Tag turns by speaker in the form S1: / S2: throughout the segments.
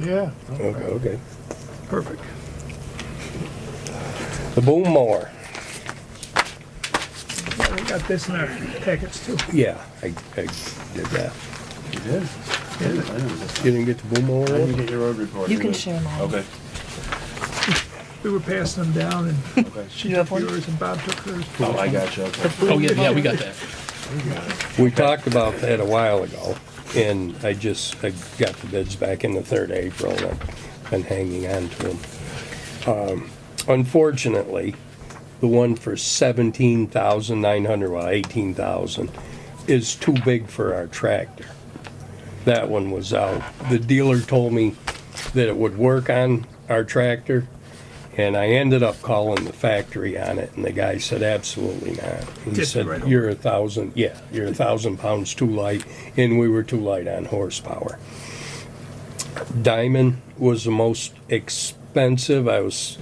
S1: Yeah.
S2: Okay, okay.
S1: Perfect.
S2: The boom mower.
S1: Yeah, We got this in our packets too.
S2: Yeah, I, I did that.
S3: You did?
S1: Yeah.
S3: I didn't get
S2: You didn't get the boom mower?
S3: I didn't
S2: one?
S3: get your road report.
S4: You can
S3: did.
S4: share mine.
S3: Okay,
S1: We were passing them down and
S3: okay.
S1: she took yours and Bob took hers.
S3: Oh, I got you, okay.
S5: Oh, yeah, yeah, we got that.
S2: We talked about that a while ago, and I just, I got the bids back in the third of April, and I've been hanging on to them. Unfortunately, the one for seventeen thousand nine hundred, well, eighteen thousand, is too big for our tractor. That one was out. The dealer told me that it would work on our tractor, and I ended up calling the factory on it, and the guy said, absolutely not. He
S1: Just
S2: said,
S1: right over.
S2: you're a thousand, yeah, you're a thousand pounds too light, and we were too light on horsepower. Diamond was the most expensive. I was,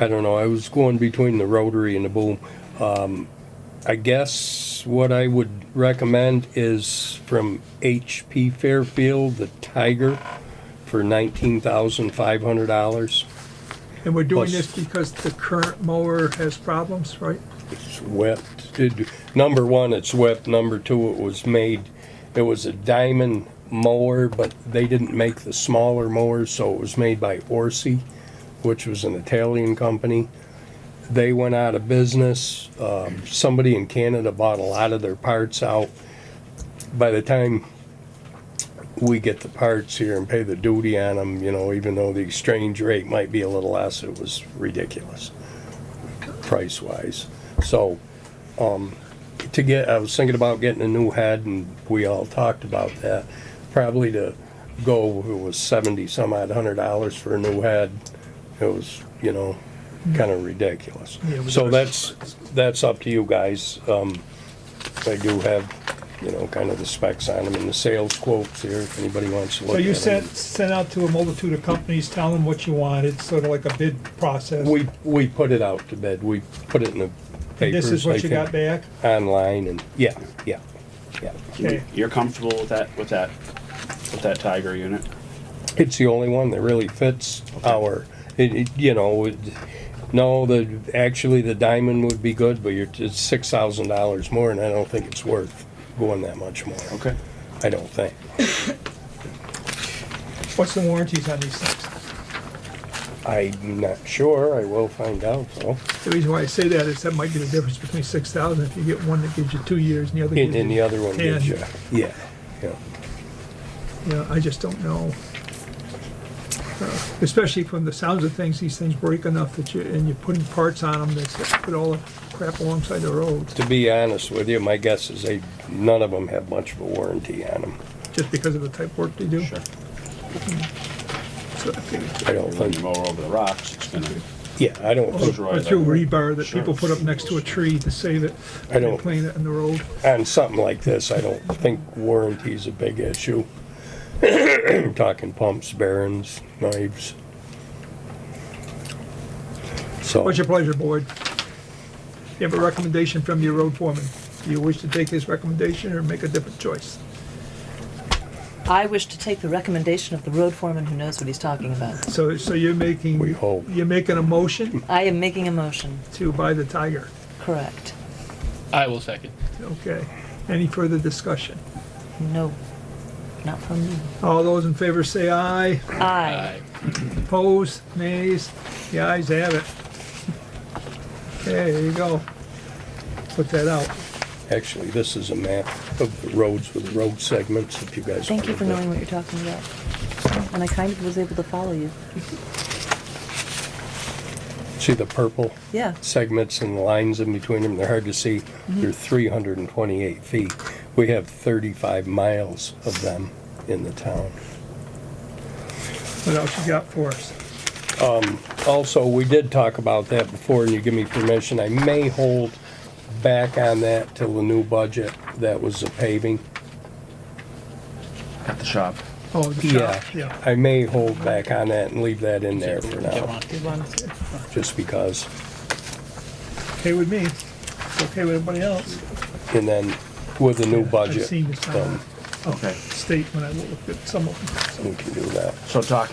S2: I don't know, I was going between the rotary and the boom. Um, I guess what I would recommend is from HP Fairfield, the Tiger for nineteen thousand five hundred dollars.
S1: And we're doing
S2: Plus-
S1: this because the current mower has problems, right?
S2: It's whipped. It- number one, it's whipped. Number two, it was made, it was a diamond mower, but they didn't make the smaller mowers, so it was made by Orsi, which was an Italian company. They went out of business. Um, somebody in Canada bought a lot of their parts out. By the time we get the parts here and pay the duty on them, you know, even though the exchange rate might be a little less, it was ridiculous price wise. So, um, to get, I was thinking about getting a new head and we all talked about that. Probably to go, it was seventy some odd hundred dollars for a new head. It was, you know, kinda ridiculous.
S1: Yeah, we
S2: So
S1: got-
S2: that's, that's up to you guys. Um, I do have, you know, kind of the specs on them and the sales quotes here, if anybody wants to look
S6: So
S2: at them.
S6: you sent, sent out to a multitude of companies, tell them what you wanted, sort of like a bid process.
S2: We, we put it out to bid. We put it in the
S6: And
S2: papers.
S6: This is
S2: I
S6: what you
S2: think.
S6: got back?
S2: online and yeah, yeah, yeah.
S6: Okay,
S3: You're comfortable with that, with that, with that Tiger unit?
S2: It's the only one that really fits our. It, it, you know, it, no, the actually the diamond would be good, but you're it's six thousand dollars more, and I don't think it's worth going that much more.
S3: Okay.
S2: I don't think.
S6: what's the warranties on these things?
S2: I'm not sure. I will find out though.
S1: The reason why I say that is that might be the difference between six thousand, if you get one that gives you two years and the other
S2: And,
S1: gives you.
S2: and the other one gives you,
S1: ten.
S2: yeah, yeah.
S1: Yeah, I just don't know. Uh, Especially from the sounds of things, these things break enough that you, and you're putting parts on them that put all the crap alongside the roads,
S2: To be honest with you, my guess is they none of them have much of a warranty on them.
S1: just because of the type of work they do.
S3: Sure.
S1: So I figured-
S2: I don't
S3: When you
S2: think.
S3: mow over the rocks, it's gonna,
S2: Yeah, I don't think
S3: Destroy
S1: Or through
S3: that.
S1: rebar that
S3: Sure.
S1: people put up next to a tree to save it.
S2: I don't-
S1: and Plane it in the road.
S2: on something like this, I don't think warranty's a big issue. I'm talking pumps, bearings, knives. So,
S1: What's your pleasure, board? You have a recommendation from your road foreman. Do you wish to take his recommendation or make a different choice?
S4: I wish to take the recommendation of the road foreman who knows what he's talking about.
S1: So, so you're making.
S2: We hope.
S1: You're making a motion
S4: I am making a motion,
S1: to buy the Tiger.
S4: correct?
S5: I will second.
S1: Okay. Any further discussion?
S4: No, not from me.
S1: All those in favor say aye.
S4: Aye.
S5: Aye.
S1: Opposed, nays? The ayes have it. Okay, there you go. Put that out.
S2: actually, this is a map of the roads with road segments, if you guys.
S4: Thank you
S2: wanna
S4: for
S2: look.
S4: knowing what you're talking about. And I kind of was able to follow you.
S2: See the purple
S4: Yeah.
S2: segments and the lines in between them, they're hard to see. They're three hundred and twenty-eight feet. We have thirty-five miles of them in the town.
S1: What else you got for us?
S2: Also, we did talk about that before, and you give me permission, I may hold back on that till the new budget, that was the paving.
S3: at the shop.
S1: Oh, the shop, yeah.
S2: I may hold back on that and leave that in there for now,
S5: Get
S4: You want-
S2: just because.
S1: Okay with me. It's okay with everybody else.
S2: And then with the new
S1: I've
S2: budget,
S1: seen this on
S2: um,
S1: a state when I looked at some of them. so.
S2: we can do that.
S3: So talking